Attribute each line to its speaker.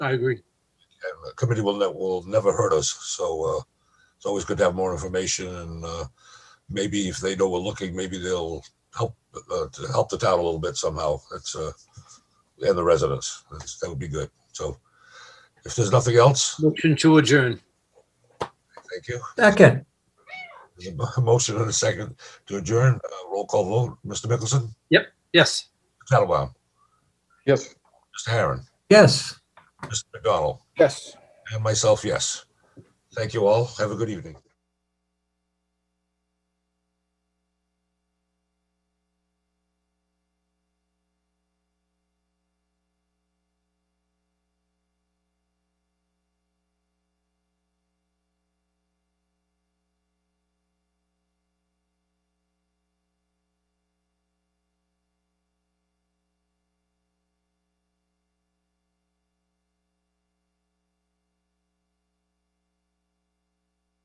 Speaker 1: I agree.
Speaker 2: And the committee will, ne- will never hurt us. So uh, it's always good to have more information and uh, maybe if they know we're looking, maybe they'll help, uh, to help the town a little bit somehow. That's, uh, and the residents. That's, that would be good. So if there's nothing else,
Speaker 1: Motion to adjourn.
Speaker 2: thank you.
Speaker 3: Second,
Speaker 2: There's a motion and a second to adjourn. Uh, Roll call vote. Mr. Mickelson?
Speaker 1: Yes.
Speaker 2: Mr. Tattelbaum?
Speaker 4: Yes.
Speaker 2: Mr. Herron?
Speaker 3: yes.
Speaker 2: Mr. McDonald?
Speaker 4: Yes.
Speaker 2: And myself, yes. Thank you all. Have a good evening.